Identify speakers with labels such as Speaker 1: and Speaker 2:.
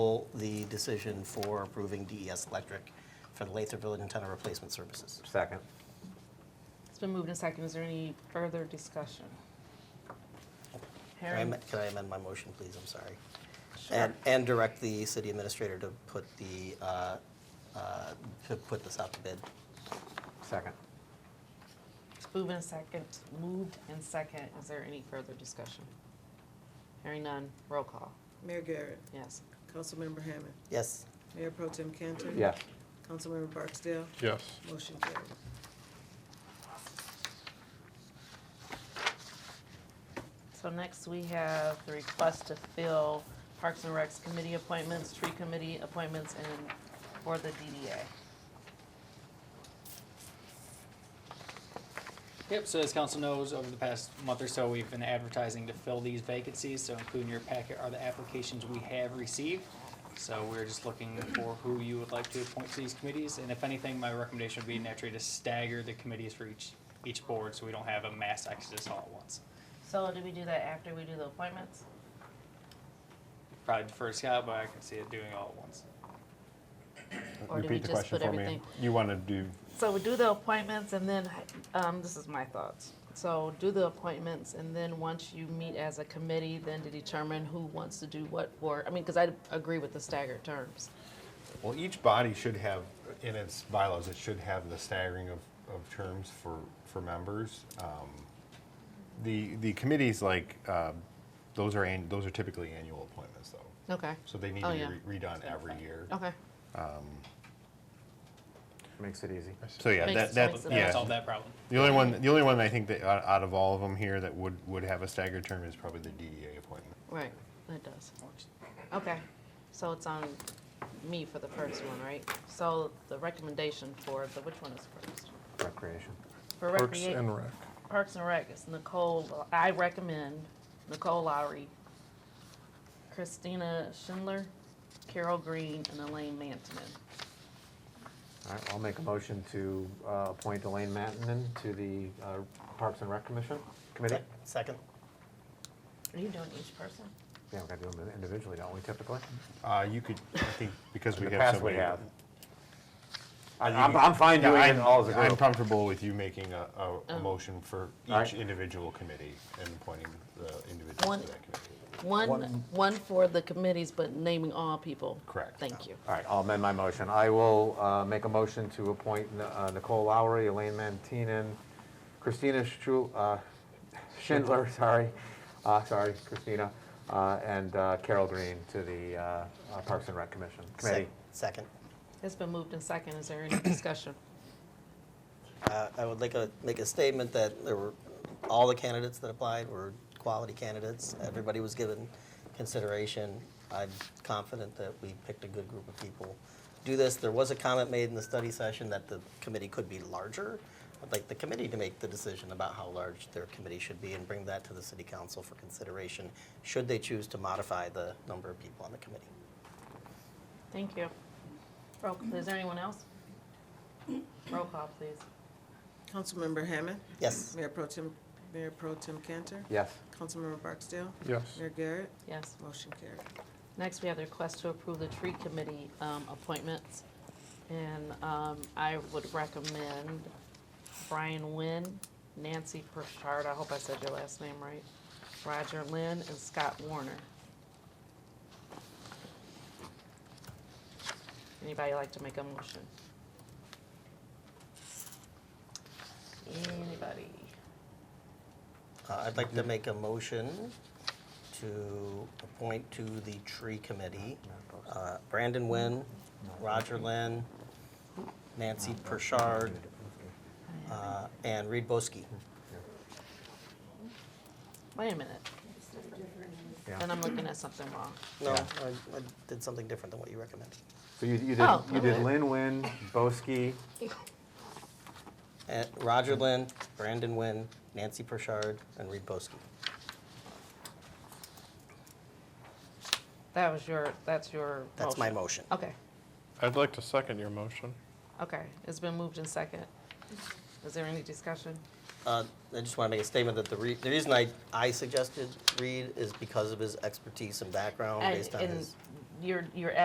Speaker 1: the decision for approving DES Electric for the Lather Village antenna replacement services.
Speaker 2: Second.
Speaker 3: It's been moved and second. Is there any further discussion?
Speaker 1: Can I am- can I amend my motion, please? I'm sorry. And, and direct the city administrator to put the, uh, uh, to put this out to bid.
Speaker 2: Second.
Speaker 3: It's moved and second, moved and second. Is there any further discussion? Hearing none, roll call.
Speaker 4: Mayor Garrett,
Speaker 3: Yes.
Speaker 4: Councilmember Hammond,
Speaker 1: Yes,
Speaker 4: Mayor Pro Tem Cantor.
Speaker 2: Yes.
Speaker 4: Councilmember Barksdale,
Speaker 5: Yes.
Speaker 4: motion carried.
Speaker 3: So next we have the request to fill Parks and Recs committee appointments, tree committee appointments, and for the DDA.
Speaker 6: Yep, so as council knows, over the past month or so, we've been advertising to fill these vacancies, so including your packet are the applications we have received. So we're just looking for who you would like to appoint to these committees, and if anything, my recommendation would be naturally to stagger the committees for each, each board, so we don't have a mass exodus all at once.
Speaker 3: So do we do that after we do the appointments?
Speaker 6: Probably defer to Scott, but I can see it doing all at once.
Speaker 3: Or do we
Speaker 5: Repeat the
Speaker 3: just
Speaker 5: question
Speaker 3: put
Speaker 5: for me.
Speaker 3: everything-
Speaker 5: You want to do,
Speaker 3: So we do the appointments and then, um, this is my thoughts. So do the appointments and then once you meet as a committee, then to determine who wants to do what for, I mean, because I agree with the staggered terms.
Speaker 7: Well, each body should have, in its bylaws, it should have the staggering of, of terms for, for members. Um, The, the committees like, uh, those are, an- those are typically annual appointments though.
Speaker 3: Okay,
Speaker 7: So they need
Speaker 3: Oh,
Speaker 7: to
Speaker 3: yeah. Oh,
Speaker 7: be re- redone every year.
Speaker 3: okay.
Speaker 2: Makes it easy.
Speaker 7: So yeah,
Speaker 3: Makes-
Speaker 7: that, that,
Speaker 3: makes it
Speaker 6: That'll
Speaker 7: yeah.
Speaker 6: Solve that problem.
Speaker 7: The only one, the only one I think that uh, out out of all of them here that would, would have a staggered term is probably the DDA appointment.
Speaker 3: Right, it does. Okay, so it's on me for the first one, right? So the recommendation for the, which one is first?
Speaker 2: Recreation.
Speaker 3: For
Speaker 5: Parks
Speaker 3: recrea-
Speaker 5: and Rec.
Speaker 3: Parks and Rec, it's Nicole, I recommend Nicole Lowry, Christina Schindler, Carol Green, and Elaine Mantman.
Speaker 2: All right, I'll make a motion to uh, appoint Elaine Mattinen to the uh, Parks and Rec Commission, committee.
Speaker 1: Yep. second?
Speaker 3: Are you doing each person?
Speaker 2: Yeah, we gotta do them individually, don't we typically?
Speaker 7: Uh, you could, I think, because
Speaker 2: In
Speaker 7: we
Speaker 2: the
Speaker 7: have so
Speaker 2: past,
Speaker 7: many.
Speaker 2: we have. I-
Speaker 7: You
Speaker 2: I'm,
Speaker 7: can-
Speaker 2: I'm fine
Speaker 7: Yeah,
Speaker 2: doing it
Speaker 7: I'm-
Speaker 2: all as a
Speaker 7: I'm
Speaker 2: group.
Speaker 7: comfortable with you making a, a- a
Speaker 3: Um,
Speaker 7: motion for
Speaker 2: Alright.
Speaker 7: each individual committee and appointing the individuals
Speaker 3: One-
Speaker 7: to that committee.
Speaker 3: One,
Speaker 2: One.
Speaker 3: one for the committees, but naming all people.
Speaker 7: Correct.
Speaker 3: Thank you.
Speaker 2: All right, I'll amend my motion. I will uh, make a motion to appoint N- uh, Nicole Lowry, Elaine Mantinen, Christina Stru- uh, Schindler, sorry, uh, sorry, Christina, uh, and uh, Carol Green to the uh, uh, Parks and Rec Commission,
Speaker 1: Sec-
Speaker 2: committee.
Speaker 1: Second.
Speaker 3: It's been moved and second. Is there any discussion?
Speaker 1: Uh, I would like to make a statement that there were, all the candidates that applied were quality candidates. Everybody was given consideration. I'm confident that we picked a good group of people. to Do this, there was a comment made in the study session that the committee could be larger. I'd like the committee to make the decision about how large their committee should be and bring that to the city council for consideration, should they choose to modify the number of people on the committee.
Speaker 3: Thank you. Roll, is there anyone else? Roll call, please.
Speaker 4: Councilmember Hammond,
Speaker 1: Yes,
Speaker 4: Mayor Pro Tem, Mayor Pro Tem Cantor,
Speaker 2: Yes,
Speaker 4: Councilmember Barksdale,
Speaker 5: Yes.
Speaker 4: Mayor Garrett,
Speaker 3: Yes.
Speaker 4: motion carried.
Speaker 3: Next, we have the request to approve the tree committee um, appointments. And um, I would recommend Brian Nguyen, Nancy Pritchard, I hope I said your last name right, Roger Lynn, and Scott Warner. Anybody like to make a motion? Anybody?
Speaker 1: Uh, I'd like to make a motion to appoint to the tree committee uh, Brandon Nguyen, Roger Lynn, Nancy Pershard, uh, and Reed Boski.
Speaker 3: Wait a minute,
Speaker 2: yeah.
Speaker 3: then I'm looking at something wrong.
Speaker 1: No, I I did something different than what you recommended.
Speaker 2: So you, you did,
Speaker 3: Oh,
Speaker 2: you did
Speaker 3: okay.
Speaker 2: Lin Win, Boski,
Speaker 1: And Eh, Roger Lynn, Brandon Nguyen, Nancy Pershard, and Reed Boski.
Speaker 3: That was your, that's your
Speaker 1: That's my motion. Oh.
Speaker 3: Okay.
Speaker 5: I'd like to second your motion.
Speaker 3: Okay, it's been moved in second. Is there any discussion?
Speaker 1: Uh, I just want to make a statement that the re- the reason I I suggested Reed is because of his expertise and background
Speaker 3: And-
Speaker 1: based on
Speaker 3: and
Speaker 1: his
Speaker 3: you're, you're